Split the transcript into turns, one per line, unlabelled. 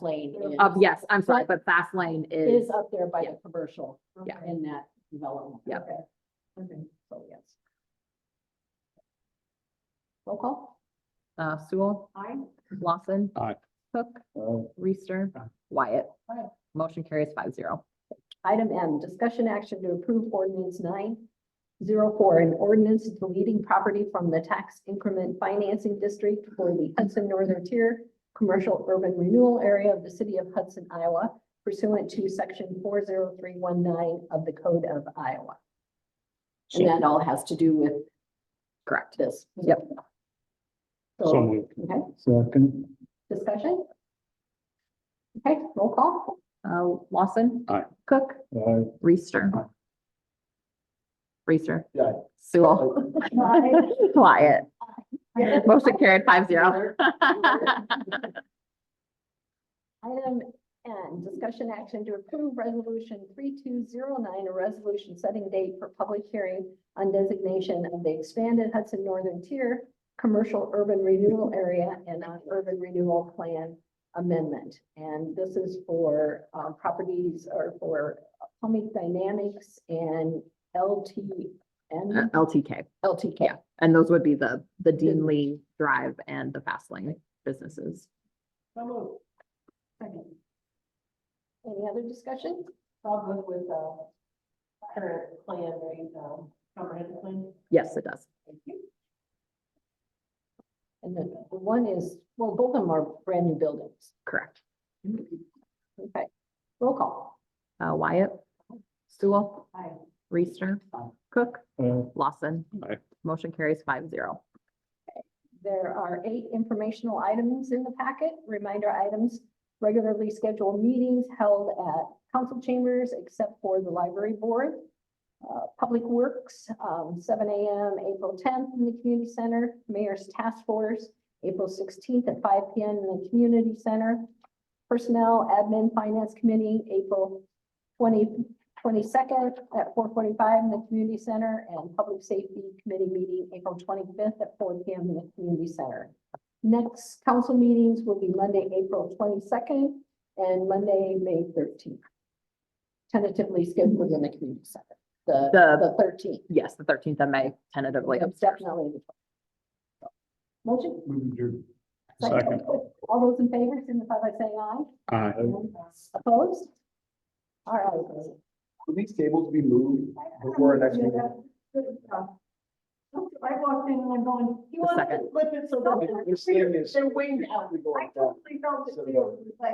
lane is.
Um, yes, I'm sorry, but fast lane is,
Is up there by
yeah.
the commercial.
Yeah.
In that development.
Yeah.
Okay. Okay, so yes. Roll call.
uh, Sewell,
Aye.
Lawson.
Aye.
Cook,
Aye.
Reister,
Aye.
Wyatt.
Aye.
Motion carries five zero.
Item M, discussion action to approve ordinance nine zero four, an ordinance deleting property from the tax increment financing district for the Hudson Northern Tier Commercial Urban Renewal Area of the City of Hudson, Iowa pursuant to section four zero three one nine of the Code of Iowa. And that all has to do with
Correct.
this.
Yep.
So
So,
moved.
okay,
Second.
discussion? Okay, roll call.
Uh, Lawson.
Aye.
Cook,
Aye.
Reister. Reister.
Aye.
Sewell, Wyatt. Motion carried five zero.
Item N, discussion action to approve resolution three two zero nine, a resolution setting date for public hearing on designation of the expanded Hudson Northern Tier Commercial Urban Renewal Area and on Urban Renewal Plan Amendment. And this is for uh, properties or for Pomic Dynamics and LTN,
LTK.
LTK.
Yeah, and those would be the, the Dean Lee Drive and the fast lane businesses.
So moved. Second. Any other discussion? I'll go with, uh, current plan, right, um, comprehensive plan.
Yes, it does.
Thank you. And then the one is, well, both of them are brand new buildings.
Correct.
Mm-hmm. Okay, roll call.
Uh, Wyatt. Sewell.
Aye.
Reister.
Aye.
Cook.
Aye.
Lawson.
Aye.
Motion carries five zero.
There are eight informational items in the packet, reminder items, regularly scheduled meetings held at council chambers except for the library board. Uh, Public Works, um, seven AM, April tenth in the community center, mayor's task force, April sixteenth at five PM in the community center. Personnel, admin, finance committee, April 20 22nd at four forty-five in the community center and public safety committee meeting April twenty-fifth at four P M in the community center. Next council meetings will be Monday, April twenty-second and Monday, May thirteenth. Tentatively scheduled in the community center, the,
The-
the thirteenth,
Yes, the thirteenth of May tentatively.
definitely. the 12th. Motion?
Move adjourned. Second.
All those in favor, signify by saying aye.
Aye.
Opposed? All right.
Will these tables be moved before our next meeting?
I walked in and I'm going, you
The
want
second.
to flip it so
I
that
understand this.
they're winged out.
We're going
I
down.
totally felt it
So
too.
do I.
It was like-